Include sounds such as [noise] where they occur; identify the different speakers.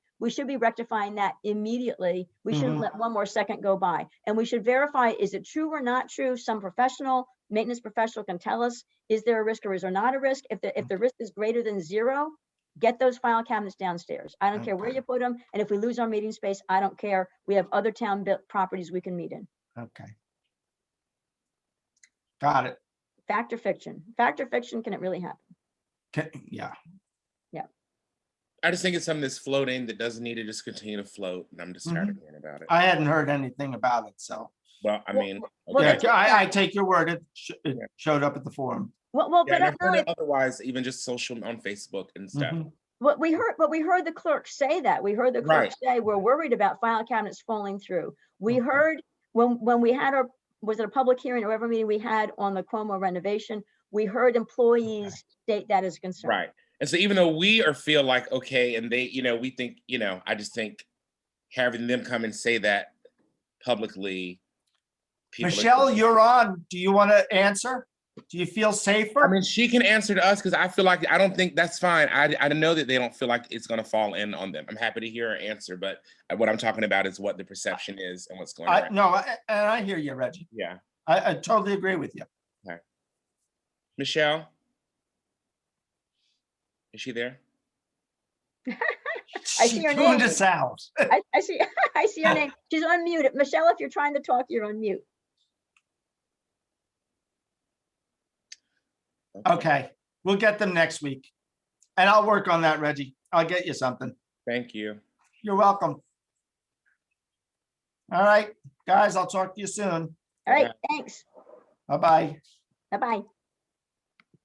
Speaker 1: we should be rectifying that immediately. We shouldn't
Speaker 2: Mhm.
Speaker 1: let one more second go by. And we should verify, is it true or not true? Some professional, maintenance professional can tell us, is there a risk or is there not a risk? If the, if the risk is greater than zero, get those file cabinets downstairs. I don't care where
Speaker 2: Okay.
Speaker 1: you put them. And if we lose our meeting space, I don't care. We have other town built properties we can meet in.
Speaker 2: Okay. Got it.
Speaker 1: Fact or fiction? Fact or fiction, can it really happen?
Speaker 2: Ca- Yeah,
Speaker 3: I just think it's something that's floating that doesn't need to just continue to float, and I'm just tired of hearing about it.
Speaker 2: Mm-hmm. I hadn't heard anything about it, so.
Speaker 3: Well, I
Speaker 1: Well,
Speaker 3: mean.
Speaker 1: well,
Speaker 2: Yeah,
Speaker 3: okay.
Speaker 1: that's-
Speaker 2: I, I take your word. It sh- it
Speaker 3: Yeah.
Speaker 2: showed up at the forum.
Speaker 1: Well, well,
Speaker 3: Yeah,
Speaker 1: but
Speaker 3: and
Speaker 1: I
Speaker 3: I've
Speaker 1: know
Speaker 3: heard
Speaker 1: it-
Speaker 3: it otherwise, even just social on Facebook and stuff.
Speaker 2: Mhm.
Speaker 1: What we heard, but we heard the clerk say that. We heard the clerk
Speaker 3: Right. Mm-hmm.
Speaker 1: say, we're worried about file cabinets falling through. We
Speaker 2: Okay.
Speaker 1: heard, when, when we had our, was it a public hearing or whatever meeting we had on the Cuomo renovation? We heard employees state that as a concern.
Speaker 3: Right. And so even though we are feel like, okay, and they, you know, we think, you know, I just think having them come and say that publicly. people are-
Speaker 2: Michelle, you're on. Do you want to answer? Do you feel
Speaker 3: I
Speaker 2: safer?
Speaker 3: mean, she can answer to us because I feel like I don't think that's fine. I I know that they don't feel like it's gonna fall in on them. I'm happy to hear her answer, but uh, what I'm talking about is what the perception is and what's going
Speaker 2: I,
Speaker 3: on.
Speaker 2: no, I- and I hear you, Reggie.
Speaker 3: Yeah.
Speaker 2: I, I totally agree with you.
Speaker 3: Michelle? Is she there?
Speaker 1: I
Speaker 2: She
Speaker 1: see your
Speaker 2: tuned
Speaker 1: name.
Speaker 2: us out.
Speaker 1: I, I see, [laughs] I see your name. She's unmuted. Michelle, if you're trying to talk, you're on mute.
Speaker 2: Okay, we'll get them next week. And I'll work on that, Reggie. I'll get you something.
Speaker 3: Thank you.
Speaker 2: You're welcome. All right, guys, I'll talk to you soon.
Speaker 1: All right,
Speaker 3: Okay.
Speaker 1: thanks.
Speaker 2: Bye-bye.
Speaker 1: Bye-bye.